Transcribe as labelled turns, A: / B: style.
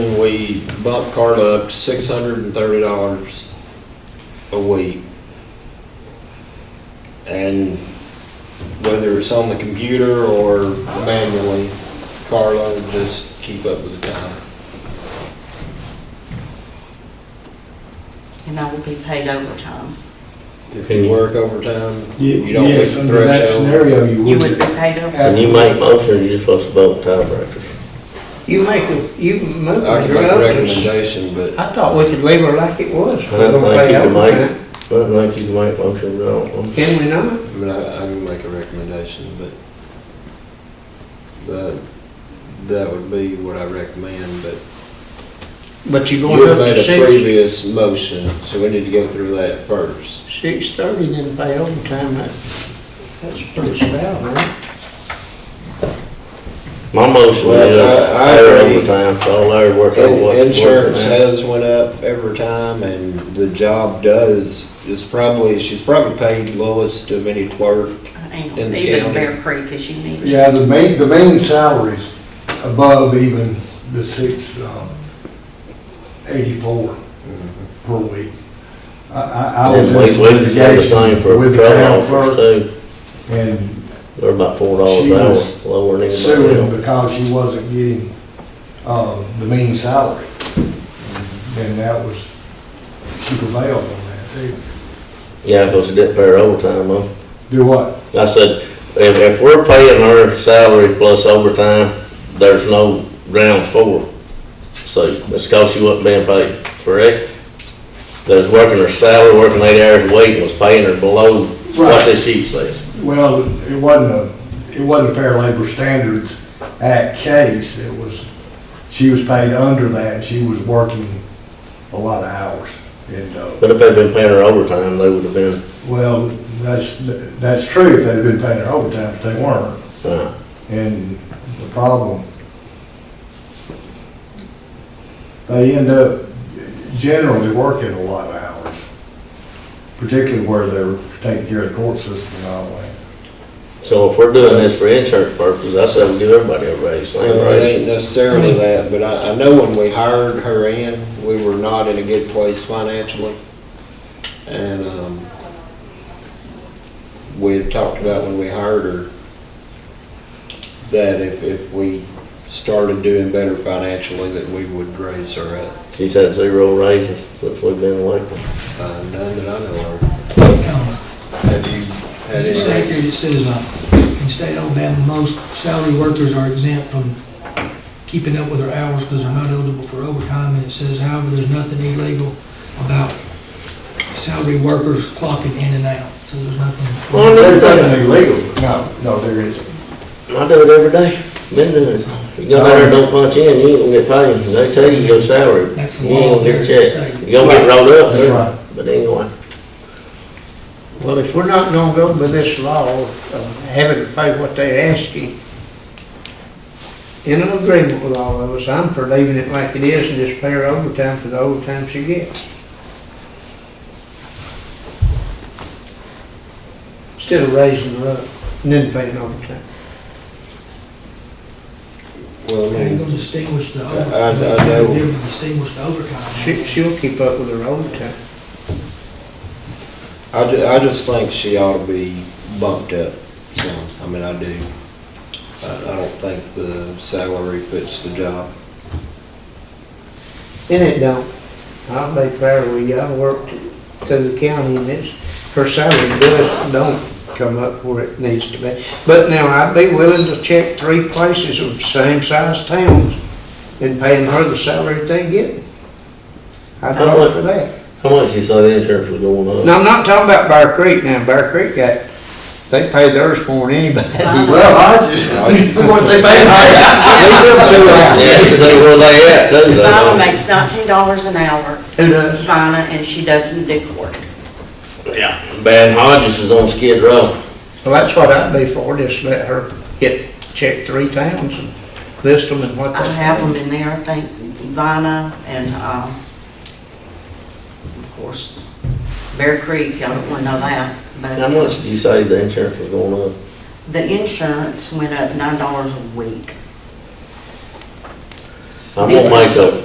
A: we bumped Carla up to six hundred and thirty dollars a week. And whether it's on the computer or manually, Carla will just keep up with the time.
B: and I will be paid overtime.
A: If
C: Can
A: you
C: you-
A: work overtime, you don't hit
D: Yes,
A: the
D: under that
A: threshold.
D: scenario, you
B: You would
D: would.
B: be paid overtime.
C: When you make motion, you're supposed to vote tiebreakers.
E: You make us, you move
A: I
E: it
A: can make
E: up.
A: a recommendation, but
E: I thought we could leave her like it was.
C: I don't
E: We're
C: think you can
E: gonna pay
C: make, I don't think you can make motions, I don't know.
E: overtime. Can we not?
A: I mean, I, I can make a recommendation, but, but uh, that would be what I recommend, but
E: But you're
A: you
E: going
A: had
E: up
A: made
E: to
A: a
E: six,
A: previous motion, so we need to go through that first.
E: six thirty, then pay overtime. That- That's pretty swell, right?
C: My motion
A: Well,
C: is
A: I- I
C: pay her
A: agree.
C: overtime, so I'll let her work on what's working
A: Insurance
C: now.
A: has went up every time, and the job does, is probably, she's probably paid lowest of any clerk.
B: Hang on,
A: In the
B: Even
A: county.
B: Bear Creek, because you need.
D: Yeah, the main, the main salaries above even the six, um, eighty-four per week. I, I, I was
C: And
D: in
C: we, we just have the same
D: litigation
C: for
D: with the
C: patrol
D: town
C: officers
D: clerk
C: too,
D: and
C: they're about four dollars
D: She
C: an
D: was
C: hour, lower than anybody
D: suing
C: else.
D: because she wasn't getting, um, the main salary. And that was, she prevailed on that too.
C: Yeah, because it didn't pay her overtime, though.
D: Do what?
C: I said, if, if we're paying her salary plus overtime, there's no round four. So it's cause she wasn't being paid, correct? That was working her salary, working eight hours a week, and was paying her below what
D: Right.
C: the sheet says.
D: Well, it wasn't a, it wasn't a Fair Labor Standards Act case, it was, she was paid under that, and she was working a lot of hours. And, uh,
C: But if they'd been paying her overtime, they would have been,
D: well, that's, that's true if they'd been paying her overtime, but they weren't.
C: uh,
D: And the problem, they end up generally working a lot of hours, particularly where they're taking care of the court system and all that.
C: so if we're doing this for insurance purposes, I said we give everybody a raise, same
A: Well, it
C: rate.
A: ain't necessarily that, but I, I know when we hired her in, we were not in a good place financially. And, um, we had talked about when we hired her, that if, if we started doing better financially, that we would raise her up,
C: She's had zero raises since we've been elected.
A: uh, none that I know of. Have you had
F: It's
A: any?
F: accurate, it says, uh, in state of Alabama, most salary workers are exempt from keeping up with their hours because they're not eligible for overtime, and it says, however, there's nothing illegal about salary workers clocking in and out, so there's nothing.
C: Well, I know
D: There's
C: that.
D: nothing illegal, no, no, there isn't.
C: I do it every day, been doing it. You go down there, and don't punch in, you ain't gonna get paid, they tell you your salary,
F: That's the
C: you ain't
F: law
C: gonna get
F: there in the
C: checked.
F: state.
C: You gonna get rolled up,
D: That's right.
C: but anyway,
E: Well, if we're not gonna go by this law, of having to pay what they ask you, in an agreement with all of us, I'm for leaving it like it is and just pay her overtime for the overtime she gets. Instead of raising her up and then paying overtime.
A: Well, I
F: They're
A: mean,
F: gonna distinguish the
A: I- I
F: overtime.
A: know.
F: They're gonna distinguish the overtime.
E: She, she'll keep up with her overtime.
A: I ju- I just think she ought to be bumped up some, I mean, I do. I, I don't think the salary fits the job.
E: And it don't. I'll be fair with you, I worked to the county and it's, her salary does, don't come up where it needs to be. But now, I'd be willing to check three places of same size towns and paying her the salary they get. I'd
C: How
E: vote
C: much?
E: for that.
C: how much you say the insurance was going up?
E: Now, I'm not talking about Bear Creek now, Bear Creek got, they pay theirs more than anybody.
D: Well, I just, what they
C: Yeah, you see where they at, too, they
B: Vina
C: don't.
B: makes nineteen dollars an hour,
E: Who does?
B: Vina, and she doesn't do court.
C: Yeah, Bad Hodges is on Skid Row,
E: Well, that's what I'd be for, just let her get, check three towns and list them and what they.
B: I have them in there, I think, Vina and, um, of course, Bear Creek, y'all don't wanna know that, but.
C: how much did you say the insurance was going up?
B: The insurance went up nine dollars a week.
C: I'm
B: This
C: gonna
B: is-
C: make a